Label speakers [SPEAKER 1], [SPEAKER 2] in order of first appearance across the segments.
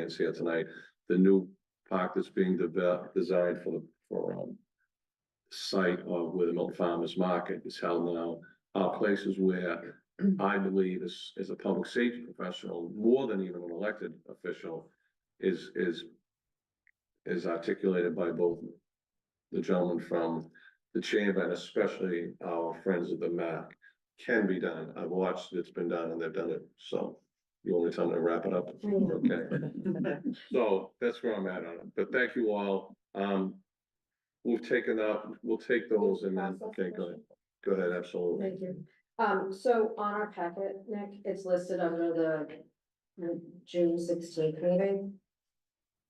[SPEAKER 1] Can't see it tonight, the new park that's being developed, designed for, the for, um. Site of where the Milton Farmers Market is held now, are places where I believe as, as a public safety professional, more than even an elected official. Is, is. Is articulated by both. The gentleman from the chamber and especially our friends at the MAC. Can be done. I've watched, it's been done and they've done it, so. You want me to tell them to wrap it up? Okay. So that's where I'm at on it, but thank you all. Um, we've taken out, we'll take those and then, okay, go ahead. Go ahead, absolutely.
[SPEAKER 2] Thank you. Um, so on our packet, Nick, it's listed under the uh, June sixteenth meeting.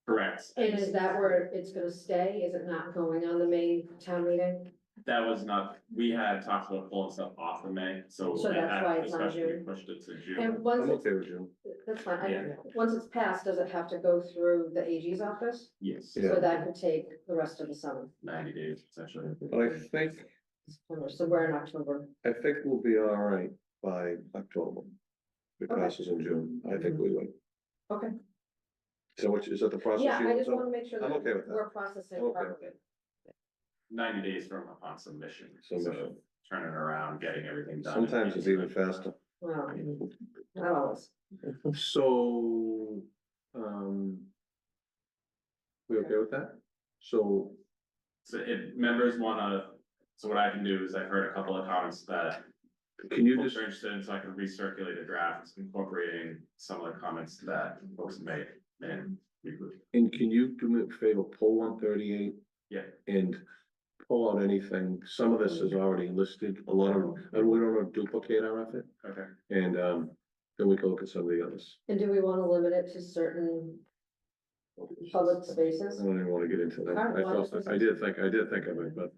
[SPEAKER 3] Correct.
[SPEAKER 2] And is that where it's gonna stay? Is it not going on the May town meeting?
[SPEAKER 3] That was not, we had talked about pulling stuff off of May, so.
[SPEAKER 2] So
[SPEAKER 3] at
[SPEAKER 2] that's
[SPEAKER 3] that
[SPEAKER 2] why it's on
[SPEAKER 3] discussion, we
[SPEAKER 2] June.
[SPEAKER 3] Pushed it to
[SPEAKER 2] And
[SPEAKER 3] June.
[SPEAKER 2] once
[SPEAKER 1] I'm
[SPEAKER 2] it's,
[SPEAKER 1] okay with you.
[SPEAKER 2] that's fine, I,
[SPEAKER 3] Yeah.
[SPEAKER 2] once it's passed, does it have to go through the AG's office?
[SPEAKER 3] Yes,
[SPEAKER 1] Yeah.
[SPEAKER 2] So that could take the rest of the summer,
[SPEAKER 3] ninety days essentially.
[SPEAKER 1] But I think,
[SPEAKER 2] so we're in October.
[SPEAKER 1] I think we'll be all right by October. If It
[SPEAKER 2] Okay.
[SPEAKER 1] passes in June, I think we would.
[SPEAKER 2] Okay.
[SPEAKER 1] So which, is that the process?
[SPEAKER 2] Yeah,
[SPEAKER 1] you
[SPEAKER 2] I
[SPEAKER 1] want
[SPEAKER 2] just
[SPEAKER 1] to-
[SPEAKER 2] wanna make sure
[SPEAKER 1] I'm okay with
[SPEAKER 2] that
[SPEAKER 1] that.
[SPEAKER 2] we're processing
[SPEAKER 1] I'm okay
[SPEAKER 2] part
[SPEAKER 1] with
[SPEAKER 2] of it.
[SPEAKER 3] Ninety days from upon submission. so
[SPEAKER 1] Submission.
[SPEAKER 3] Turning around, getting everything done.
[SPEAKER 1] Sometimes it's even faster.
[SPEAKER 2] Well, not always.
[SPEAKER 1] So, um. We okay with that? So,
[SPEAKER 3] So if members wanna, so what I can do is I've heard a couple of comments that
[SPEAKER 1] can you
[SPEAKER 3] folks
[SPEAKER 1] just,
[SPEAKER 3] are interested in, so I can recirculate a draft incorporating some of the comments that folks made. And we would,
[SPEAKER 1] and can you do me a favor, pull one thirty-eight?
[SPEAKER 3] Yeah.
[SPEAKER 1] And pull out anything, some of this is already listed, a lot of, and we don't want to duplicate our effort,
[SPEAKER 3] okay,
[SPEAKER 1] and, um, then we can look at some of the others.
[SPEAKER 2] And do we wanna limit it to certain public spaces?
[SPEAKER 1] I don't even wanna get into that. I
[SPEAKER 2] Alright, well,
[SPEAKER 1] thought-
[SPEAKER 2] this is-
[SPEAKER 1] I did think, I did think of it, but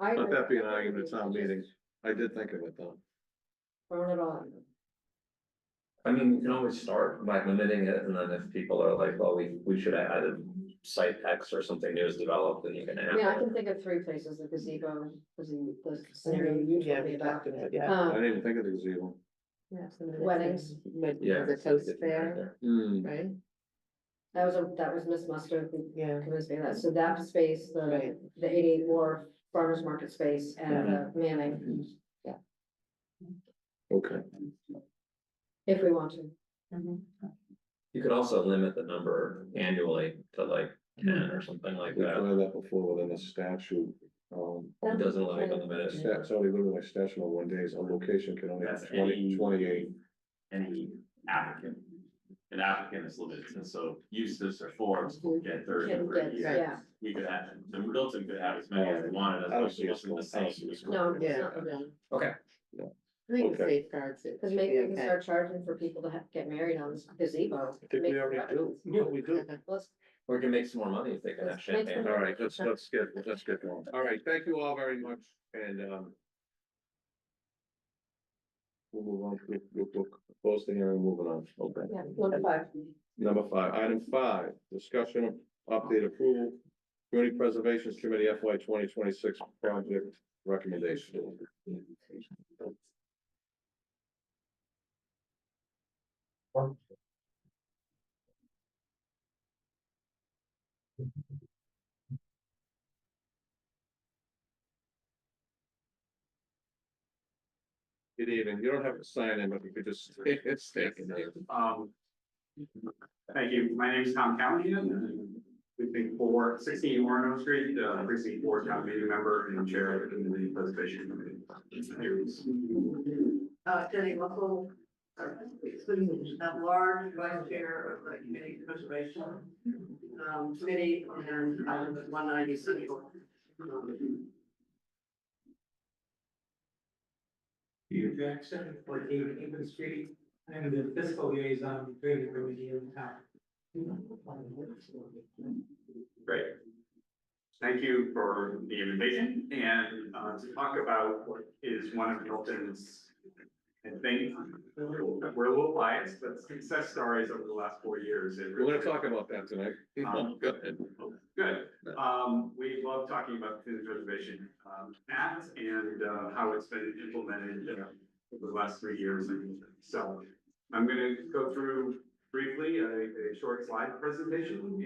[SPEAKER 2] I
[SPEAKER 1] let
[SPEAKER 2] agree.
[SPEAKER 1] that be an argument at town meeting. I did think of it though.
[SPEAKER 2] Throwing it on.
[SPEAKER 4] I mean, you can always start by limiting it, and then if people are like, well, we, we should have added site X or something new is developed, then you can add.
[SPEAKER 2] I mean, I
[SPEAKER 4] it.
[SPEAKER 2] can think of three places, the gazebo, the, the scenario
[SPEAKER 1] Mm-hmm.
[SPEAKER 2] you told me about.
[SPEAKER 5] yeah.
[SPEAKER 1] I
[SPEAKER 2] Um,
[SPEAKER 1] didn't even think of the gazebo.
[SPEAKER 2] Weddings.
[SPEAKER 5] Mm-hmm.
[SPEAKER 4] Yeah.
[SPEAKER 5] The toast fair,
[SPEAKER 1] Hmm,
[SPEAKER 5] right?
[SPEAKER 2] that was a, that was Miss Mustard who
[SPEAKER 5] Yeah.
[SPEAKER 2] convinced me of that, so that space, the,
[SPEAKER 5] Right.
[SPEAKER 2] the eighty-eight war farmer's market space and the
[SPEAKER 1] Mm-hmm.
[SPEAKER 2] Manning,
[SPEAKER 1] okay.
[SPEAKER 2] if we want to.
[SPEAKER 4] You could also limit the number annually to like ten or something like
[SPEAKER 1] We've
[SPEAKER 4] that,
[SPEAKER 1] done that before within a statute, um,
[SPEAKER 4] it doesn't allow you to limit it.
[SPEAKER 1] stat- it's only literally my statute on one day, is a location can only have
[SPEAKER 3] That's
[SPEAKER 1] twenty,
[SPEAKER 3] any-
[SPEAKER 1] twenty-eight.
[SPEAKER 3] any applicant. An applicant is limited, and so uses or forms will get thirty
[SPEAKER 2] Can
[SPEAKER 3] per
[SPEAKER 2] get-
[SPEAKER 3] year.
[SPEAKER 2] yeah.
[SPEAKER 3] We could have, the Milton could have as many as they wanted,
[SPEAKER 1] I
[SPEAKER 3] as long
[SPEAKER 1] don't
[SPEAKER 3] as
[SPEAKER 1] see
[SPEAKER 3] it
[SPEAKER 1] us going,
[SPEAKER 3] wasn't the
[SPEAKER 1] I don't see
[SPEAKER 3] same.
[SPEAKER 1] us going.
[SPEAKER 2] No, it's
[SPEAKER 5] Yeah.
[SPEAKER 2] not, no,
[SPEAKER 4] Okay,
[SPEAKER 5] I think the
[SPEAKER 1] Okay.
[SPEAKER 5] safeguards it.
[SPEAKER 2] because maybe we can start charging for people to ha- get married on this gazebo.
[SPEAKER 1] I think we already do, yeah, we do.
[SPEAKER 2] Let's,
[SPEAKER 4] or you can make some more money if they can have
[SPEAKER 2] Let's make
[SPEAKER 4] champagne.
[SPEAKER 1] All right, let's, let's get, let's get going. All right, thank you all very much, and, um. We'll move on, we'll, we'll, we'll close the hearing, moving on, okay.
[SPEAKER 2] yeah, number five.
[SPEAKER 1] Number five, item five, discussion of update approval, community preservations committee FY twenty twenty-six project recommendation. Good evening, you don't have to sign in, but you could just, it's taken.
[SPEAKER 3] Um. Thank you, my name is Tom Callahan, and we've been for sixteen Warren Street, uh, precinct four town meeting member and chair of the community preservation committee.
[SPEAKER 6] uh, Jenny Russell, uh, at large vice chair of the community preservation um, committee and item one ninety central. Um,
[SPEAKER 7] Hugh Jackson, fourteen Haven Street, I am the fiscal liaison between the committee and town.
[SPEAKER 3] Great. Thank you for the invitation and uh, to talk about what is one of Milton's. I think we're a little biased, but success stories over the last four years. It
[SPEAKER 1] We're gonna
[SPEAKER 3] really-
[SPEAKER 1] talk about that tonight.
[SPEAKER 3] Um,
[SPEAKER 1] Go ahead.
[SPEAKER 3] Good. Um, we love talking about the Preservation um, Act and uh, how it's been implemented uh, over the last three years. And so I'm gonna go through briefly a, a short slide presentation